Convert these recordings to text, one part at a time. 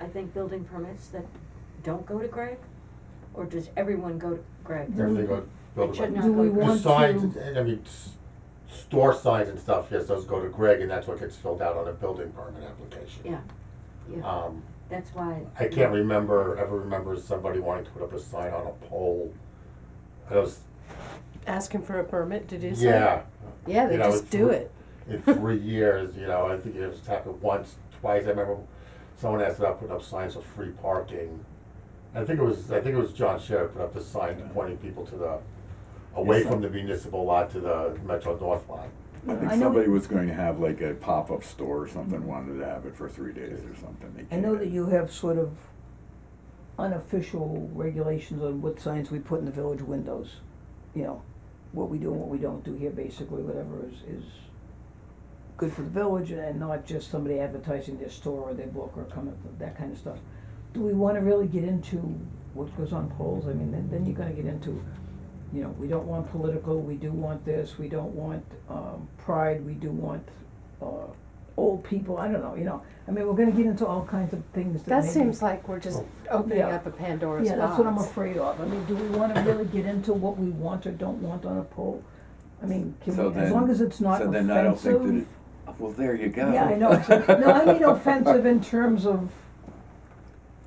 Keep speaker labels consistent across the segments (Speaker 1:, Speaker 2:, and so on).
Speaker 1: I think, building permits that don't go to Greg? Or does everyone go to Greg?
Speaker 2: Everything goes,
Speaker 1: Mm-hmm. It should
Speaker 2: building,
Speaker 1: not
Speaker 3: Do
Speaker 1: go
Speaker 3: we
Speaker 1: to Greg.
Speaker 2: the
Speaker 3: want
Speaker 2: signs,
Speaker 3: to-
Speaker 2: and I mean, s- store signs and stuff, yes, those go to Greg, and that's what gets filled out on a building permit application.
Speaker 1: Yeah, yeah,
Speaker 2: Um,
Speaker 1: that's why.
Speaker 2: I can't remember, ever remember somebody wanting to put up a sign on a pole. I was,
Speaker 4: Asking for a permit to do something?
Speaker 2: yeah,
Speaker 4: Yeah, they
Speaker 2: You know,
Speaker 4: just
Speaker 2: it's
Speaker 4: do
Speaker 2: re-
Speaker 4: it.
Speaker 2: in three years, you know, I think it was happened once, twice, I remember someone asked about putting up signs for free parking. I think it was, I think it was John Sherrick put up the sign pointing people to the, away from the municipal lot to the Metro North line.
Speaker 5: I think
Speaker 3: I know
Speaker 5: somebody was going to have like a pop-up store or something, wanted to have it for three days or something. They
Speaker 6: I know
Speaker 5: can't.
Speaker 6: that you have sort of unofficial regulations on what signs we put in the village windows. You know, what we do and what we don't do here, basically, whatever is, is good for the village and not just somebody advertising their store or their book or coming, that kind of stuff. Do we wanna really get into what goes on polls? I mean, then, then you're gonna get into, you know, we don't want political, we do want this, we don't want, um, pride, we do want, uh, old people, I don't know, you know. I mean, we're gonna get into all kinds of things that
Speaker 4: That
Speaker 6: maybe-
Speaker 4: seems like we're just opening
Speaker 6: Yeah.
Speaker 4: up a Pandora's box.
Speaker 6: Yeah, that's what I'm afraid of. I mean, do we wanna really get into what we want or don't want on a poll? I mean, can
Speaker 5: So
Speaker 6: we, as
Speaker 5: then-
Speaker 6: long as it's not
Speaker 5: So
Speaker 6: offensive.
Speaker 5: then I don't think that it, well, there you go.
Speaker 6: Yeah, I know. exactly. No, I mean offensive in terms of,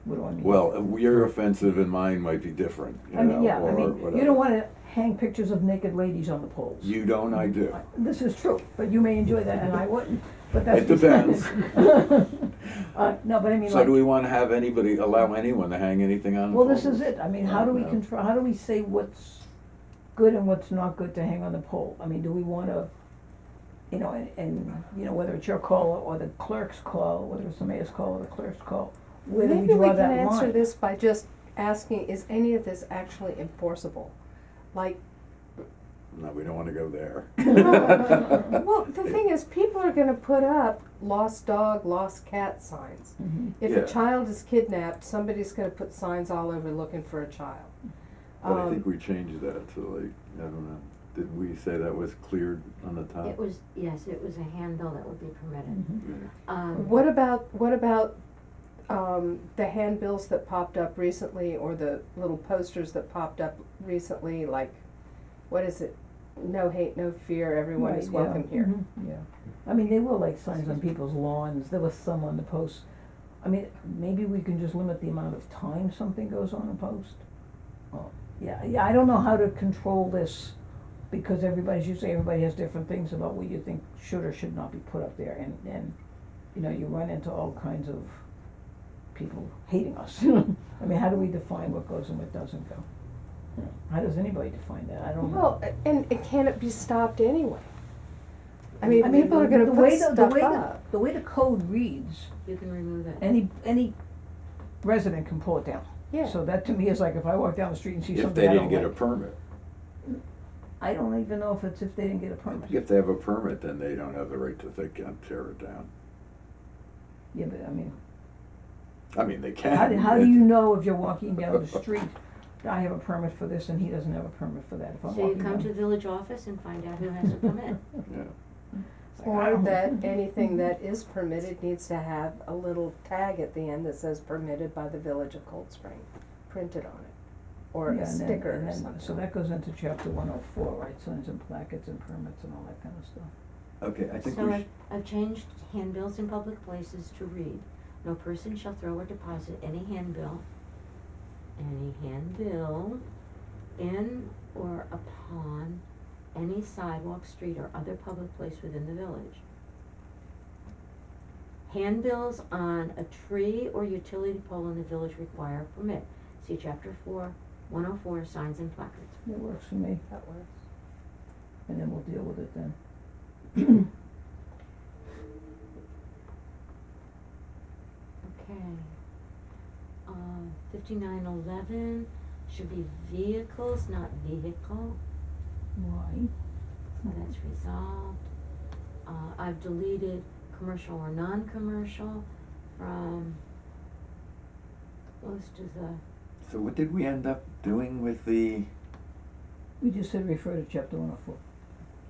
Speaker 6: what do I mean?
Speaker 5: Well, your offensive and mine might be different, you
Speaker 6: I mean,
Speaker 5: know,
Speaker 6: yeah, I
Speaker 5: or
Speaker 6: mean,
Speaker 5: whatever.
Speaker 6: you don't wanna hang pictures of naked ladies on the poles.
Speaker 5: You don't, I do.
Speaker 6: This is true, but you may enjoy that and I wouldn't, but that's.
Speaker 5: It depends.
Speaker 6: Uh, no, but I mean,
Speaker 5: So do
Speaker 6: like,
Speaker 5: we wanna have anybody, allow anyone to hang anything on? the
Speaker 6: well, this
Speaker 5: pole?
Speaker 6: is it. I mean, how do we
Speaker 5: Yeah.
Speaker 6: control, how do we say what's good and what's not good to hang on the pole? I mean, do we wanna, you know, and, and, you know, whether it's your call or the clerk's call, whether it's the mayor's call or the clerk's call, where do we
Speaker 4: Maybe we
Speaker 6: draw
Speaker 4: can
Speaker 6: that line?
Speaker 4: answer this by just asking, is any of this actually enforceable? Like,
Speaker 5: No, we don't wanna go there.
Speaker 4: well, the thing is, people are gonna put up lost dog, lost cat signs.
Speaker 6: Mhm.
Speaker 4: If
Speaker 5: Yeah.
Speaker 4: a child is kidnapped, somebody's gonna put signs all over looking for a child.
Speaker 5: But I
Speaker 4: Um,
Speaker 5: think we changed that to like, I don't know, did we say that was cleared on the top?
Speaker 1: It was, yes, it was a handbill that would be permitted. Um,
Speaker 4: What about, what about, um, the handbills that popped up recently, or the little posters that popped up recently, like, what is it? No hate, no fear, everyone is
Speaker 6: Right,
Speaker 4: welcome
Speaker 6: yeah.
Speaker 4: here.
Speaker 6: Mhm, Yeah, I mean, they were like signs on people's lawns, there was some on the posts. I mean, maybe we can just limit the amount of time something goes on a post. Oh, Yeah, yeah, I don't know how to control this, because everybody, as you say, everybody has different things about what you think should or should not be put up there, and, and, you know, you run into all kinds of people hating us. I mean, how do we define what goes and what doesn't go? You know, How does anybody define that? I don't know.
Speaker 4: Well, and, and can it be stopped anyway? I mean,
Speaker 6: mean,
Speaker 4: people are
Speaker 6: the-
Speaker 4: gonna
Speaker 6: the
Speaker 4: put
Speaker 6: way the- the
Speaker 4: stuff
Speaker 6: way the-
Speaker 4: up.
Speaker 6: The way the code reads,
Speaker 1: You can remove it.
Speaker 6: any, any resident can pull it down.
Speaker 4: Yeah,
Speaker 6: So that to me is like if I walk down the street and see
Speaker 5: If
Speaker 6: something
Speaker 5: they
Speaker 6: I
Speaker 5: didn't
Speaker 6: don't
Speaker 5: get a
Speaker 6: like.
Speaker 5: permit.
Speaker 6: I don't even know if it's if they didn't get a permit.
Speaker 5: If they have a permit, then they don't have the right to think and tear it down.
Speaker 6: Yeah, but I mean,
Speaker 5: I mean, they can.
Speaker 6: how do, how do
Speaker 5: It-
Speaker 6: you know if you're walking down the street, I have a permit for this and he doesn't have a permit for that if I'm
Speaker 1: So you
Speaker 6: walking down.
Speaker 1: come to the village office and find out who has a permit.
Speaker 5: Yeah.
Speaker 6: It's like, I
Speaker 4: or
Speaker 6: don't- Mm-hmm.
Speaker 4: that anything that is permitted needs to have a little tag at the end that says permitted by the village of Cold Spring, printed on it. Or
Speaker 6: Yeah,
Speaker 4: a
Speaker 6: and then-
Speaker 4: sticker
Speaker 6: and
Speaker 4: or
Speaker 6: then-
Speaker 4: something.
Speaker 6: So that goes into chapter one oh four, right, signs and placards and permits and all that kind of stuff.
Speaker 5: Okay, I think
Speaker 1: So
Speaker 5: we
Speaker 1: I've,
Speaker 5: should,
Speaker 1: I've changed handbills in public places to read, no person shall throw or deposit any handbill, any handbill in or upon any sidewalk, street, or other public place within the village. Handbills on a tree or utility pole in the village require a permit, see chapter four, one oh four, signs and placards.
Speaker 6: It works for me,
Speaker 4: That works.
Speaker 6: and then we'll deal with it then.
Speaker 1: Okay. Um, fifty-nine eleven should be vehicles, not vehicle,
Speaker 6: Why?
Speaker 1: so that's resolved. Uh, I've deleted commercial or non-commercial from most of the,
Speaker 5: so what did we end up doing with the,
Speaker 6: We just said refer to chapter one oh four.